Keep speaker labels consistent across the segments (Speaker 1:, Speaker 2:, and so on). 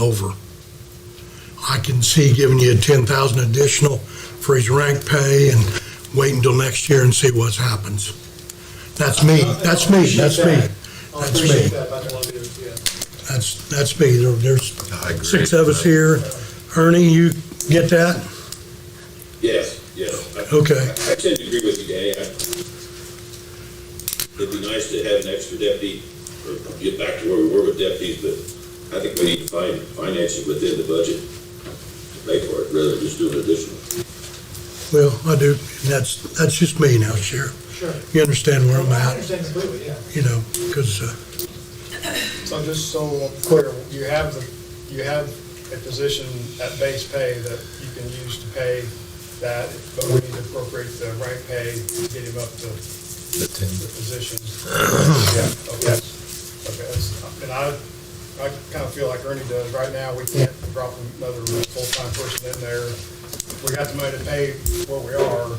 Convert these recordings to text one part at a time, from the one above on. Speaker 1: over. I can see giving you 10,000 additional for his rank pay and wait until next year and see what happens. That's me, that's me, that's me,
Speaker 2: Oh,
Speaker 3: I
Speaker 1: That's
Speaker 3: appreciate
Speaker 1: me.
Speaker 3: that, but I don't want to do it, yeah.
Speaker 1: that's, that's me. There- There's
Speaker 4: I agree.
Speaker 1: six of us here. Ernie, you get that?
Speaker 5: Yes, yes. I-
Speaker 1: Okay.
Speaker 5: I tend to agree with you, Danny. I- It'd be nice to have an extra deputy, or get back to where we were with deputies, but I think we need to find, finance it within the budget to pay for it, rather than just do an additional.
Speaker 1: Well, I do, and that's, that's just me now, Sheriff.
Speaker 3: Sure.
Speaker 1: You understand where I'm
Speaker 3: I
Speaker 1: at,
Speaker 3: understand completely, yeah.
Speaker 1: you know, uh, because
Speaker 3: So just so I'm clear, you have the, you have a position at base pay that you can use to pay that, but we need to appropriate the rank pay to get him up to the position. Yeah, okay, okay, that's, and I, I kind of feel like Ernie does, right now, we can't drop another full-time person in there. We got the money to pay where we are,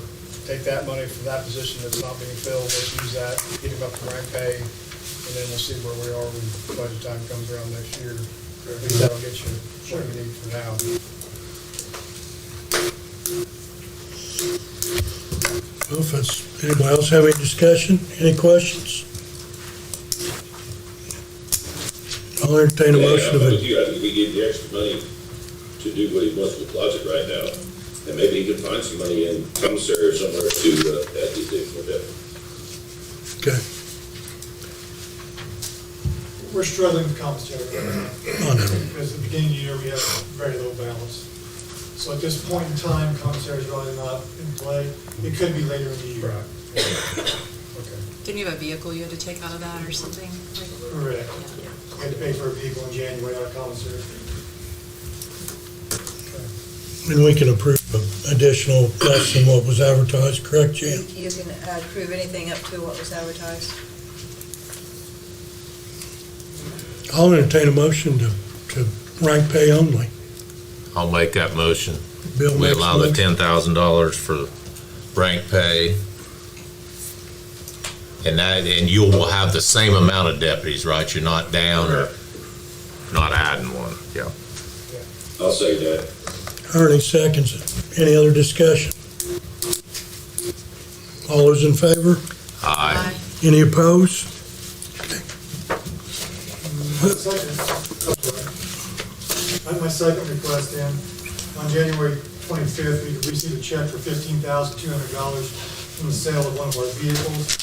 Speaker 3: take that money from that position that's not being filled, let's use that, get him up to rank pay, and then we'll see where we are when budget time comes around next year. At least that'll get you what you need for now.
Speaker 1: Well, If it's, anybody else have any discussion, any questions? I'll entertain a
Speaker 5: Yeah,
Speaker 1: motion of
Speaker 5: I'm with
Speaker 1: it.
Speaker 5: you. I think we give the extra money to do what he wants in the closet right now, and maybe he can find some money in commissary or somewhere to, uh, add these additional deputies.
Speaker 1: Okay,
Speaker 2: We're struggling with commissary right now,
Speaker 1: I know.
Speaker 2: because at the beginning of the year, we have very little balance. So at this point in time, commissary is really not in play. It could be later in the year.
Speaker 3: Okay.
Speaker 6: Didn't you have a vehicle you had to take out of that or something?
Speaker 2: Correct. We had to pay for a vehicle in January out of commissary.
Speaker 1: And we can approve additional less than what was advertised, correct, Jan?
Speaker 7: You can approve anything up to what was advertised.
Speaker 1: I'll entertain a motion to, to rank pay only.
Speaker 4: I'll make that motion.
Speaker 1: Bill
Speaker 4: We
Speaker 1: makes
Speaker 4: allow the
Speaker 1: motion.
Speaker 4: ten thousand dollars for rank pay. And that, and you will have the same amount of deputies, right? You're not down or not adding one, yeah.
Speaker 5: I'll say that.
Speaker 1: Ernie seconds it. Any other discussion? All those in favor?
Speaker 4: Aye.
Speaker 1: Any opposed?
Speaker 2: Second, I have my second request then, on January 25th, we received a check for $15,200 from the sale of one of our vehicles.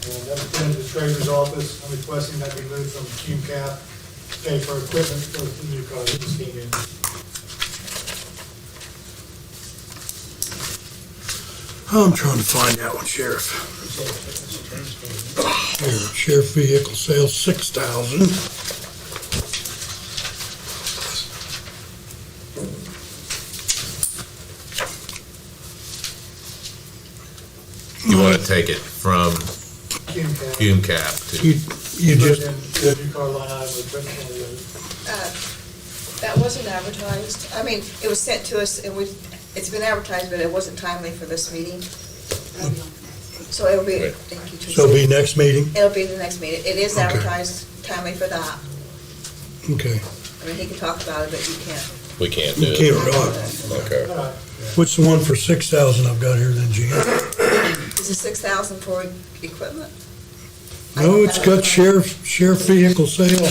Speaker 2: And that was put into the treasurer's office, I'm requesting that be moved from Cume Cap to pay for equipment for the new car that just came in.
Speaker 1: I'm trying to find that one, Sheriff. Here, Sheriff vehicle sales, six thousand.
Speaker 4: You want to take it from
Speaker 2: Cume Cap.
Speaker 4: fume cap to,
Speaker 1: You, you just,
Speaker 2: Put in the new car line item, equipment for the other.
Speaker 7: That wasn't advertised. I mean, it was sent to us and we, it's been advertised, but it wasn't timely for this meeting. So it'll be,
Speaker 4: Right.
Speaker 7: thank you,
Speaker 1: so it'll be
Speaker 7: Teresa.
Speaker 1: next meeting?
Speaker 7: It'll be the next meeting. It is
Speaker 1: Okay.
Speaker 7: advertised timely for that.
Speaker 1: Okay.
Speaker 7: I mean, he can talk about it, but you can't.
Speaker 4: we can't do
Speaker 1: You
Speaker 4: it.
Speaker 1: can't, uh,
Speaker 4: Okay.
Speaker 2: All right,
Speaker 1: what's the one for six thousand I've got here then, Gene?
Speaker 7: Is it six thousand for equipment?
Speaker 1: No, it's got sheriff, sheriff vehicle sale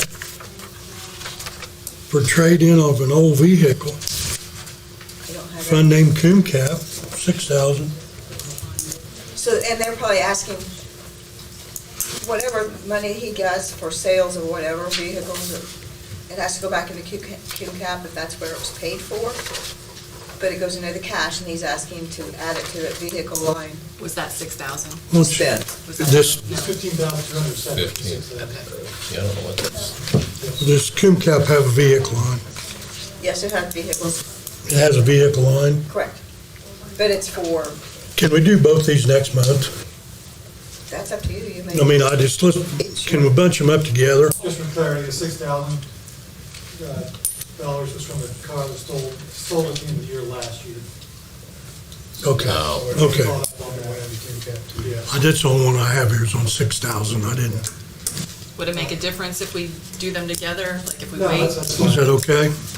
Speaker 1: for trade-in of an old vehicle,
Speaker 7: I don't have
Speaker 1: fund
Speaker 7: it.
Speaker 1: named Coon Cap, six thousand.
Speaker 7: So, and they're probably asking whatever money he gets for sales or whatever vehicles, it has to go back into Q Q cap if that's where it was paid for. But it goes into the cash and he's asking to add it to the vehicle line.
Speaker 6: Was that six thousand?
Speaker 7: Spend.
Speaker 1: This,
Speaker 2: it's 15,276.
Speaker 4: Yeah, I don't know what that's,
Speaker 1: does Coon Cap have a vehicle line?
Speaker 7: Yes, it has vehicles,
Speaker 1: It has a vehicle line.
Speaker 7: correct. But it's for,
Speaker 1: Can we do both these next month?
Speaker 7: that's up to you, you may.
Speaker 1: I mean, I just, let's, can we bunch them up together?
Speaker 2: Just for clarity, the six thousand uh, dollars was from the car that stole, stole at the end of the year last year.
Speaker 1: Okay,
Speaker 4: No.
Speaker 1: okay.
Speaker 2: Yes.
Speaker 1: That's the only one I have here is on six thousand. I didn't,
Speaker 8: Would it make a difference if we do them together, like if we
Speaker 6: No,
Speaker 8: wait?
Speaker 6: that's- that's fine.
Speaker 1: Is that okay?